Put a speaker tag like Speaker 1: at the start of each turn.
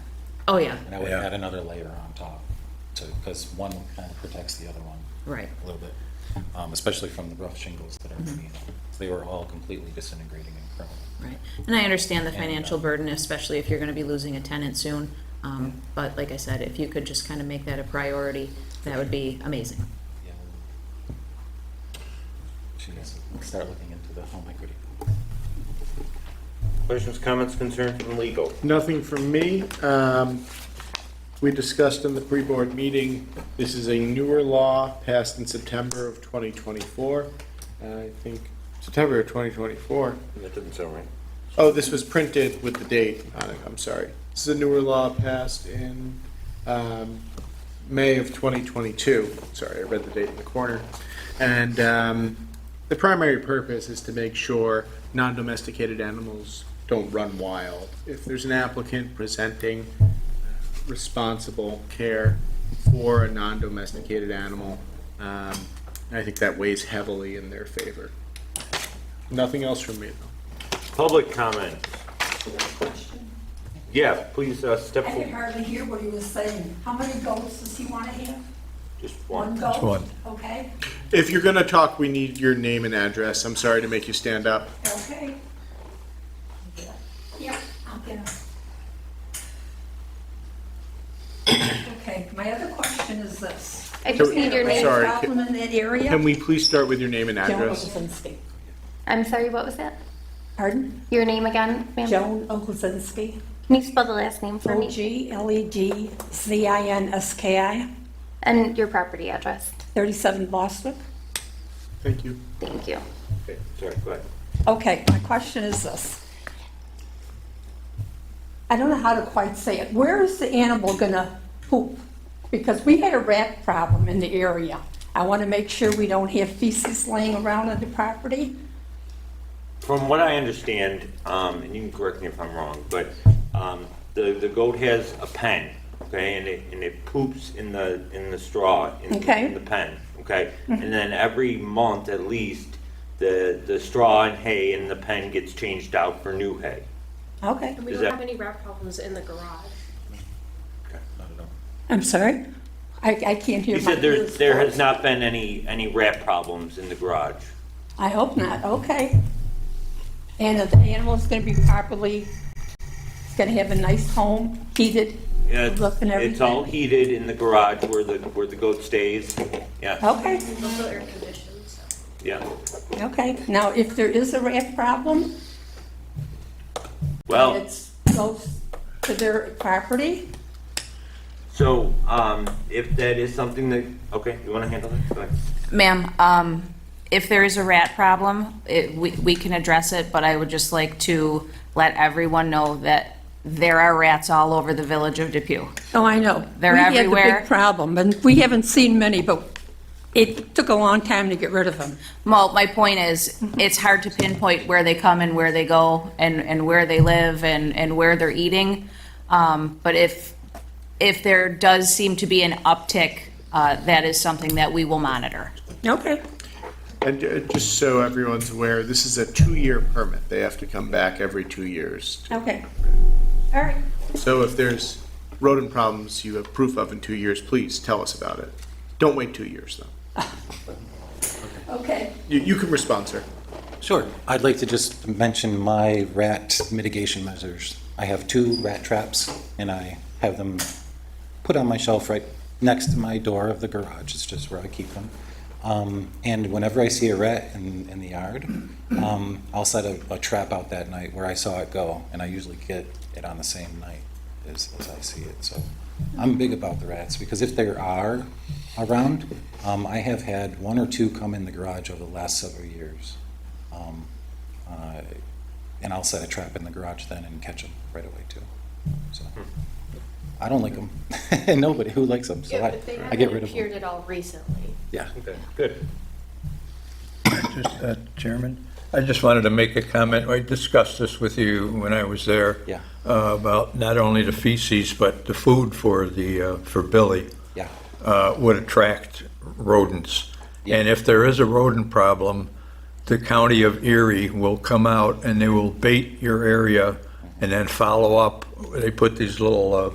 Speaker 1: Oh, yeah,
Speaker 2: And I would
Speaker 3: Yeah.
Speaker 2: add another layer on top, so, because one kind of protects the other one
Speaker 1: right.
Speaker 2: a little bit, um, especially from the rough shingles that are beneath. They were all completely disintegrating and crumbling.
Speaker 1: Right, and I understand the
Speaker 2: And,
Speaker 1: financial
Speaker 2: uh,
Speaker 1: burden, especially if you're gonna be losing a tenant soon. Um, but like I said, if you could just kind of make that a priority, that would be amazing.
Speaker 2: Yeah. She needs to start looking into the home equity.
Speaker 4: Questions, comments, concerns from legal?
Speaker 5: Nothing from me. Um, We discussed in the pre-board meeting, this is a newer law passed in September of 2024. Uh, I think September of 2024.
Speaker 4: That doesn't sound right.
Speaker 5: Oh, this was printed with the date on it, I'm sorry. This is a newer law passed in um, May of 2022. Sorry, I read the date in the corner. And um, the primary purpose is to make sure non-domesticated animals don't run wild. If there's an applicant presenting responsible care for a non-domesticated animal, um, I think that weighs heavily in their favor. Nothing else from me, though.
Speaker 4: Public comment. Yeah, please uh, step
Speaker 6: I could
Speaker 4: forward.
Speaker 6: hardly hear what he was saying. How many goats does he want to have?
Speaker 4: Just
Speaker 6: One
Speaker 4: one.
Speaker 6: goat?
Speaker 3: one.
Speaker 6: Okay,
Speaker 5: If you're gonna talk, we need your name and address. I'm sorry to make you stand up.
Speaker 6: okay. Yeah, I'm gonna. Okay, my other question is this.
Speaker 7: I just
Speaker 5: Can we-
Speaker 7: need your
Speaker 5: I'm
Speaker 7: name.
Speaker 5: sorry,
Speaker 6: Problem in that area?
Speaker 5: Can we please start with your name and
Speaker 6: Joan
Speaker 5: address?
Speaker 6: Oglesinski.
Speaker 7: I'm sorry, what was that?
Speaker 6: Pardon?
Speaker 7: Your name again, ma'am?
Speaker 6: Joan Oglesinski.
Speaker 7: Can you spell the last name for me?
Speaker 6: E O-G-L-E-G-Z-I-N-S-K-I,
Speaker 7: And your property address?
Speaker 6: 37 Boswick.
Speaker 5: Thank you.
Speaker 7: Thank you.
Speaker 4: Okay, Sorry, go ahead.
Speaker 6: Okay, my question is this. I don't know how to quite say it. Where is the animal gonna poop? Because we had a rat problem in the area. I wanna make sure we don't have feces laying around on the property.
Speaker 4: From what I understand, um, and you can correct me if I'm wrong, but um, the the goat has a pen, okay, and it and it poops in the in the straw in,
Speaker 6: Okay. Mm-hmm.
Speaker 4: in the pen, okay, and then every month at least, the the straw and hay in the pen gets changed out for new hay.
Speaker 6: Okay,
Speaker 8: And we
Speaker 4: Is
Speaker 8: don't
Speaker 4: that-
Speaker 8: have any rat problems in the garage.
Speaker 2: Not at all.
Speaker 6: I'm sorry? I, I can't hear
Speaker 4: He
Speaker 6: my...
Speaker 4: said there
Speaker 6: ears.
Speaker 4: there has not been any any rat problems in the garage.
Speaker 6: I hope not, okay. And if the animal's gonna be properly, it's gonna have a nice home, heated,
Speaker 4: Yeah,
Speaker 6: good
Speaker 4: it's,
Speaker 6: look and everything.
Speaker 4: it's all heated in the garage where the where the goat stays. Yeah,
Speaker 6: Okay.
Speaker 8: It's also air conditioned, so.
Speaker 4: yeah.
Speaker 6: Okay, now if there is a rat problem,
Speaker 4: Well,
Speaker 6: it goes to their property?
Speaker 4: So, um, if that is something that, okay, you wanna handle that? Go ahead.
Speaker 1: Ma'am, um, if there is a rat problem, it, we, we can address it, but I would just like to let everyone know that there are rats all over the village of Depew.
Speaker 6: Oh, I know.
Speaker 1: They're
Speaker 6: We had the
Speaker 1: everywhere.
Speaker 6: big problem, and we haven't seen many, but it took a long time to get rid of them.
Speaker 1: Well, my point is, it's hard to pinpoint where they come and where they go and, and where they live and, and where they're eating. Um, but if, if there does seem to be an uptick, uh, that is something that we will monitor.
Speaker 6: Okay.
Speaker 5: And uh, just so everyone's aware, this is a two-year permit. They have to come back every two years.
Speaker 6: Okay. All right.
Speaker 5: So if there's rodent problems you have proof of in two years, please tell us about it. Don't wait two years, though.
Speaker 6: Okay.
Speaker 5: You, you can respond, sir.
Speaker 2: Sure. I'd like to just mention my rat mitigation measures. I have two rat traps, and I have them put on my shelf right next to my door of the garage. It's just where I keep them. Um, And whenever I see a rat in, in the yard, um, I'll set a, a trap out that night where I saw it go, and I usually get it on the same night as, as I see it. So I'm big about the rats, because if there are around, um, I have had one or two come in the garage over the last several years. Um, uh, And I'll set a trap in the garage then and catch them right away too. So, I don't like them. Nobody who likes them, so I, I get rid of
Speaker 8: Appeared
Speaker 2: them.
Speaker 8: at all recently.
Speaker 2: Yeah.
Speaker 4: Okay, good.
Speaker 3: Just, uh, Chairman, I just wanted to make a comment. I discussed this with you when I was there.
Speaker 2: Yeah.
Speaker 3: uh, About not only the feces, but the food for the, uh, for Billy.
Speaker 2: Yeah.
Speaker 3: uh, Would attract rodents.
Speaker 2: Yeah.
Speaker 3: And if there is a rodent problem, the county of Erie will come out and they will bait your area and then follow up. They put these little uh,